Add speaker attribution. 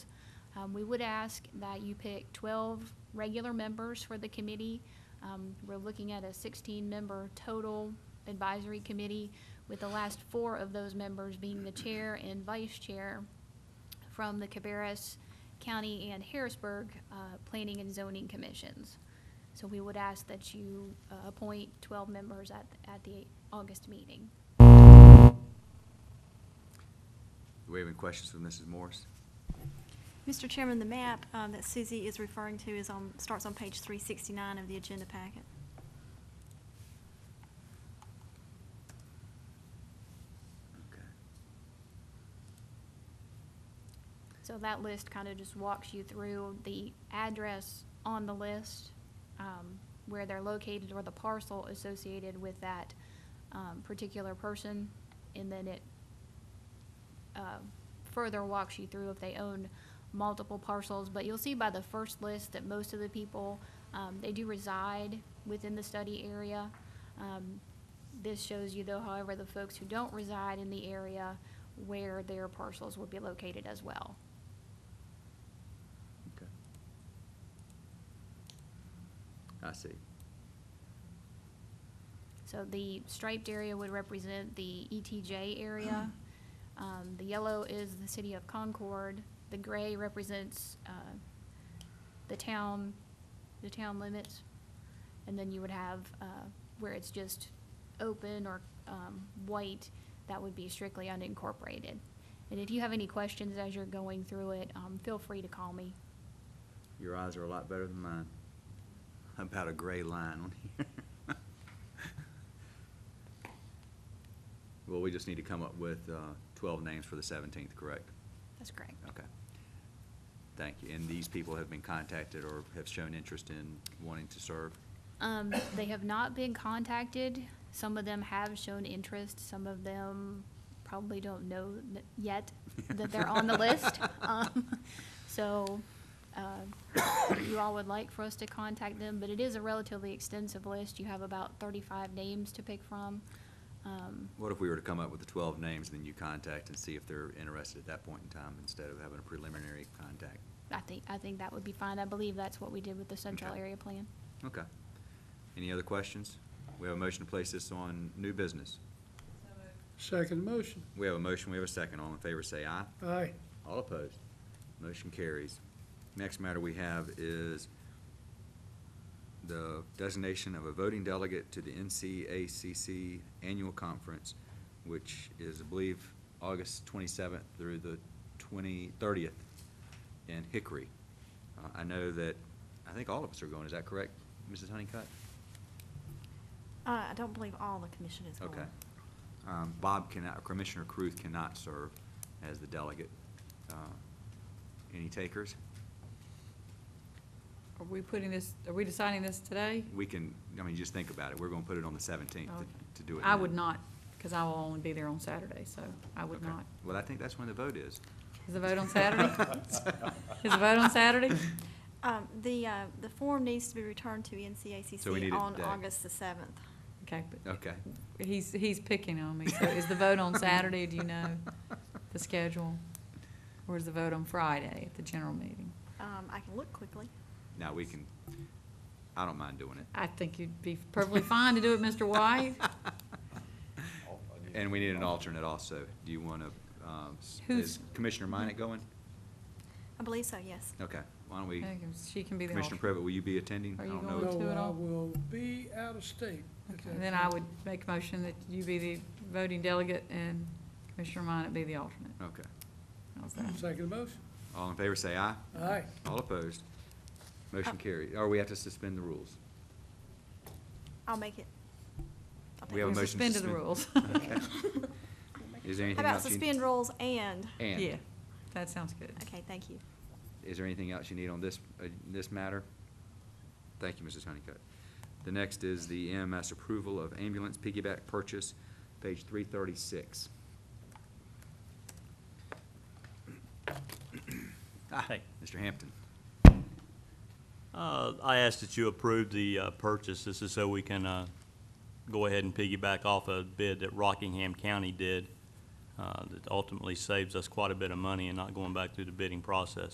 Speaker 1: Um, we would ask that you pick twelve regular members for the committee. Um, we're looking at a sixteen-member total advisory committee, with the last four of those members being the chair and vice chair from the Cabarrus County and Harrisburg, uh, Planning and Zoning Commissions. So we would ask that you, uh, appoint twelve members at, at the August meeting.
Speaker 2: Do we have any questions for Mrs. Morris?
Speaker 3: Mr. Chairman, the map um, that Susie is referring to is on, starts on page 369 of the agenda packet.
Speaker 2: Okay.
Speaker 1: So that list kind of just walks you through the address on the list, um, where they're located or the parcel associated with that, um, particular person. And then it, uh, further walks you through if they own multiple parcels. But you'll see by the first list that most of the people, um, they do reside within the study area. Um, this shows you though, however, the folks who don't reside in the area where their parcels would be located as well.
Speaker 2: Okay. I see.
Speaker 1: So the striped area would represent the ETJ area. Um, the yellow is the city of Concord. The gray represents, uh, the town, the town limits. And then you would have, uh, where it's just open or, um, white, that would be strictly unincorporated. And if you have any questions as you're going through it, um, feel free to call me.
Speaker 2: Your eyes are a lot better than mine. About a gray line on here. Well, we just need to come up with uh, 12 names for the 17th, correct?
Speaker 1: That's correct.
Speaker 2: Okay. Thank you. And these people have been contacted or have shown interest in wanting to serve?
Speaker 1: Um, they have not been contacted. Some of them have shown interest. Some of them probably don't know n- yet that they're on the list. Um, so, uh, you all would like for us to contact them, but it is a relatively extensive list. You have about thirty-five names to pick from. Um,
Speaker 2: What if we were to come up with the 12 names, then you contact and see if they're interested at that point in time instead of having a preliminary contact?
Speaker 1: I think, I think that would be fine. I believe that's what we did with the central
Speaker 2: Okay.
Speaker 1: area plan.
Speaker 2: Okay. Any other questions? We have a motion to place this on new business.
Speaker 4: Second motion.
Speaker 2: We have a motion, we have a second. All in favor, say aye.
Speaker 4: Aye.
Speaker 2: All opposed? Motion carries. Next matter we have is the designation of a voting delegate to the NCACC Annual Conference, which is, I believe, August 27th through the 20, 30th in Hickory. Uh, I know that, I think all of us are going, is that correct, Mrs. Honeycutt?
Speaker 3: Uh, I don't believe all the commission is going.
Speaker 2: Okay. Um, Bob cannot, Commissioner Cruth cannot serve as the delegate. Uh, Any takers?
Speaker 5: Are we putting this, are we deciding this today?
Speaker 2: We can, I mean, just think about it. We're gonna put it on the seventeenth
Speaker 5: Okay.
Speaker 2: to do it.
Speaker 5: I
Speaker 2: then.
Speaker 5: would not, because I will only be there on Saturday, so I would
Speaker 2: Okay.
Speaker 5: not.
Speaker 2: Well, I think that's when the vote is.
Speaker 5: Is the vote on Saturday? Is the vote on Saturday?
Speaker 3: Um, The, uh, the form needs to be returned to NCACC
Speaker 2: So we need it
Speaker 3: on
Speaker 2: today.
Speaker 3: August the 7th.
Speaker 5: Okay, but
Speaker 2: Okay.
Speaker 5: he's, he's picking on me. So is the vote on Saturday, do you know the schedule? Or is the vote on Friday at the general meeting?
Speaker 3: Um, I can look quickly.
Speaker 2: Now, we can, I don't mind doing it.
Speaker 5: I think you'd be perfectly fine to do it, Mr. White.
Speaker 2: And we need an alternate also. Do you wanna, um, s- is
Speaker 5: Who's-
Speaker 2: Commissioner Minnick going?
Speaker 3: I believe so, yes.
Speaker 2: Okay, why don't we,
Speaker 5: Okay, She can be the
Speaker 2: Commissioner
Speaker 5: alternate.
Speaker 2: Privet, will you be attending?
Speaker 5: Are
Speaker 2: I
Speaker 5: you
Speaker 2: don't
Speaker 5: going
Speaker 2: know.
Speaker 5: to it
Speaker 4: No, I
Speaker 5: all?
Speaker 4: will be out of state. at that
Speaker 5: And then I
Speaker 4: time.
Speaker 5: would make a motion that you be the voting delegate and Commissioner Minot be the alternate.
Speaker 2: Okay.
Speaker 5: How's that?
Speaker 4: Second motion.
Speaker 2: All in favor, say aye.
Speaker 4: Aye.
Speaker 2: All opposed? Motion carried. Or we have to suspend the rules.
Speaker 3: I'll make it. I'll
Speaker 2: We have a
Speaker 3: make it.
Speaker 2: motion to
Speaker 5: Suspended the
Speaker 2: suspend-
Speaker 5: rules.
Speaker 2: Okay. Is there anything else?
Speaker 3: How about
Speaker 2: you-
Speaker 3: suspend rules and?
Speaker 2: And?
Speaker 5: Yeah, that sounds good.
Speaker 3: Okay, thank you.
Speaker 2: Is there anything else you need on this, uh, this matter? Thank you, Mrs. Honeycutt. The next is the EMS approval of ambulance piggyback purchase, page three thirty-six.
Speaker 6: Hey.
Speaker 2: Mr. Hampton.
Speaker 6: Uh, I ask that you approve the uh, purchase. This is so we can uh, go ahead and piggyback off a bid that Rockingham County did uh, that ultimately saves us quite a bit of money and not going back through the bidding process.